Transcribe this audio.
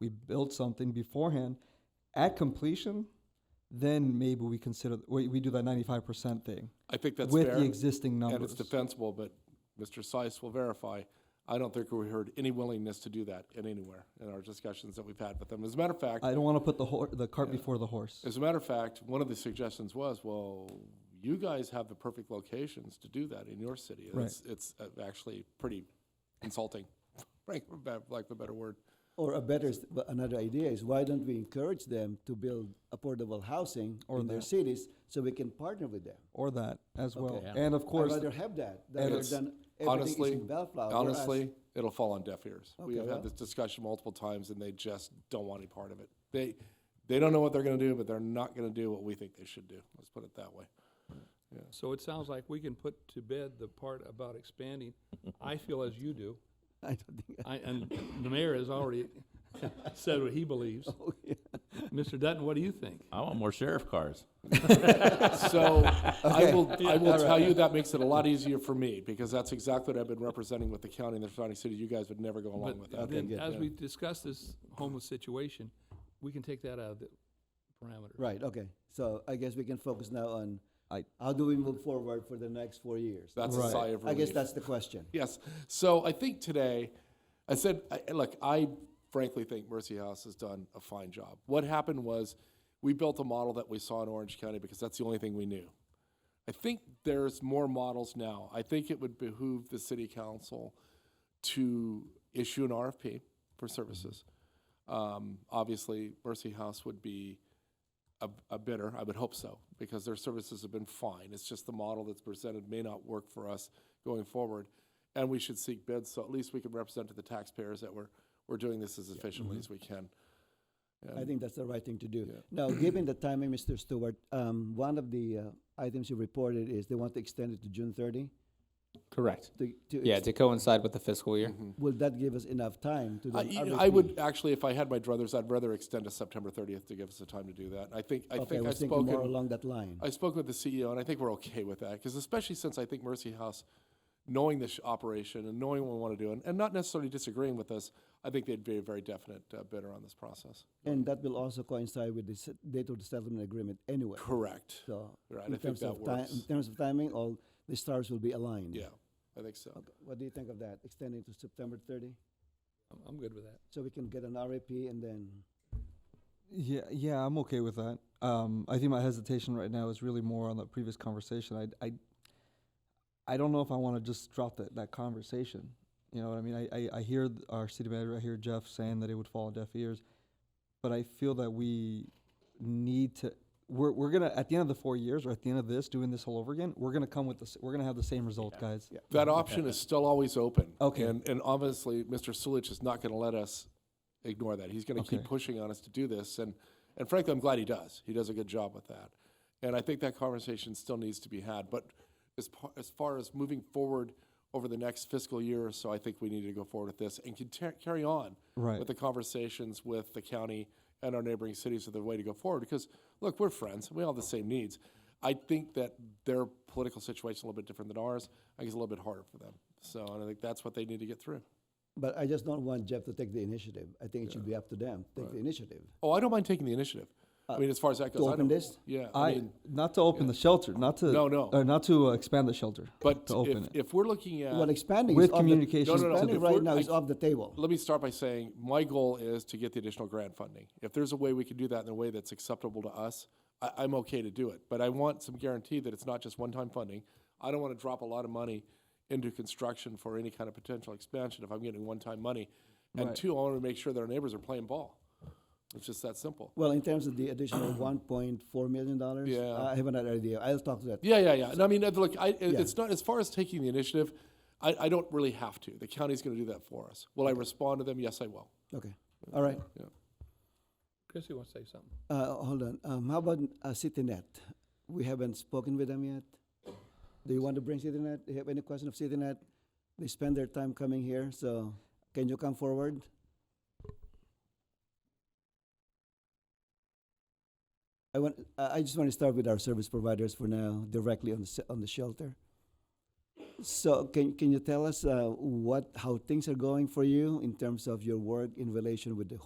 we build something beforehand. At completion, then maybe we consider, we, we do that ninety-five percent thing I think that's with fair, the existing and it's numbers. defensible, but Mr. Seiss will verify. I don't think we heard any willingness to do that in anywhere in our discussions that we've had with them. As a matter of fact, I don't want to put the hor the cart before the horse. As a matter of fact, one of the suggestions was, well, you guys have the perfect locations to do that in your city. And Right. It's, it's uh, actually pretty insulting, right, for ba- lack of a better word. Or a better, s- w- another idea is why don't we encourage them to build affordable housing in their cities so we can partner with them? Or that as well. yeah. And of course, I'd rather have that And rather it's- than everything is Honestly, in Bellflower. whereas- honestly, it'll fall on deaf ears. We Okay, have well. had this discussion multiple times and they just don't want any part of it. They, they don't know what they're gonna do, but they're not gonna do what we think they should do. Let's put it that way. So it sounds like we can put to bed the part about expanding. I feel as you do. I don't think, I, and the mayor has already said what he believes. oh, yeah. Mr. Dutton, what do you think? I want more sheriff cars. So I will, I will tell you, that makes it a lot easier for me, because that's exactly what I've been representing with the county and the surrounding cities. You guys would never go along with But that. then, as we discuss this homeless situation, we can take that out of the parameter. Right, okay. So I guess we can focus now on I- how do we move forward for the next four years? That's a Right. sigh of I relief. guess that's the question. Yes. So I think today, I said, I, look, I frankly think Mercy House has done a fine job. What happened was we built a model that we saw in Orange County because that's the only thing we knew. I think there's more models now. I think it would behoove the city council to issue an RFP for services. Um, obviously, Mercy House would be a, a bidder. I would hope so because their services have been fine. It's just the model that's presented may not work for us going forward, and we should seek bids so at least we can represent to the taxpayers that we're we're doing this as mm-hmm. efficiently as we can. I think that's the right thing to do. Now, given the timing, Mr. Stewart, um, one of the uh, items you reported is they want to extend it to June thirty. Correct. To, to Yeah, to coincide with the fiscal year. Will that give us enough time to do I, an you know, I RFP? would actually, if I had my druthers, I'd rather extend to September 30th to give us the time to do that. I think I Okay, I think I've was thinking more spoken. along that line. I spoke with the CEO, and I think we're okay with that because especially since I think Mercy House, knowing this operation and knowing what we want to do, and, and not necessarily disagreeing with us, I think they'd be a very definite uh, bidder on this process. And that will also coincide with the s- date of the settlement agreement anyway. Correct. So Right, in I think terms that of time, in works. terms of timing, all the stars will be aligned. Yeah, I think so. Okay, What do you think of that? Extending to September thirty, I'm- I'm good with that. so we can get an RFP and then, yeah, yeah, I'm okay with that. Um, I think my hesitation right now is really more on the previous conversation. I, I, I don't know if I want to just drop that, that conversation. You know what I mean? I, I, I hear th- our city manager, I hear Jeff saying that it would fall on deaf ears, but I feel that we need to. We're, we're gonna at the end of the four years or at the end of this doing this all over again. We're gonna come with this. We're gonna have the same result, guys. That option is still always open. Okay. And, and obviously, Mr. Sulich is not going to let us ignore that. He's going to keep Okay. pushing on us to do this. And, and frankly, I'm glad he does. He does a good job with that. And I think that conversation still needs to be had. But as, par, as far as moving forward over the next fiscal year or so, I think we need to go forward with this and conti- carry on Right. with the conversations with the county and our neighboring cities are the way to go forward. Because, look, we're friends. We all have the same needs. I think that their political situation is a little bit different than ours. I think it's a little bit harder for them. So, and I think that's what they need to get through. but I just don't want Jeff to take the initiative. I think it should be up to them, take the initiative. Oh, I don't mind taking the initiative. I mean, as far as that goes, I open don't- this? Yeah, I, I mean, not to open the shelter, not to No, no. or not to uh, expand the shelter, but to open if, it. if we're looking at Well, expanding is With off the- communications No, no, no, expanding if right we're- now I- is off the table. Let me start by saying my goal is to get the additional grant funding. If there's a way we can do that in a way that's acceptable to us, I, I'm okay to do it. But I want some guarantee that it's not just one time funding. I don't want to drop a lot of money into construction for any kind of potential expansion if I'm getting one time money. And two, I want to make sure that our neighbors are playing ball. It's just that simple. Well, in terms of the additional one point four million dollars, Yeah. I have another idea. I'll talk to that. Yeah, yeah, yeah. And I mean, uh, look, I, it- it's not as far as taking the initiative. I, I don't really have to. The county's going to do that for us. Will I respond to them? Yes, I will. Okay, all right. Chrissy wants to say something. Uh, hold on. Um, how about uh, CityNet? We haven't spoken with them yet. Do you want to bring CityNet? Do you have any question of CityNet? They spend their time coming here, so can you come forward? I want. uh, I I just want to start with our service providers for now, directly on the s- on the shelter. So can can you tell us uh, what how things are going for you in terms of your work in relation with the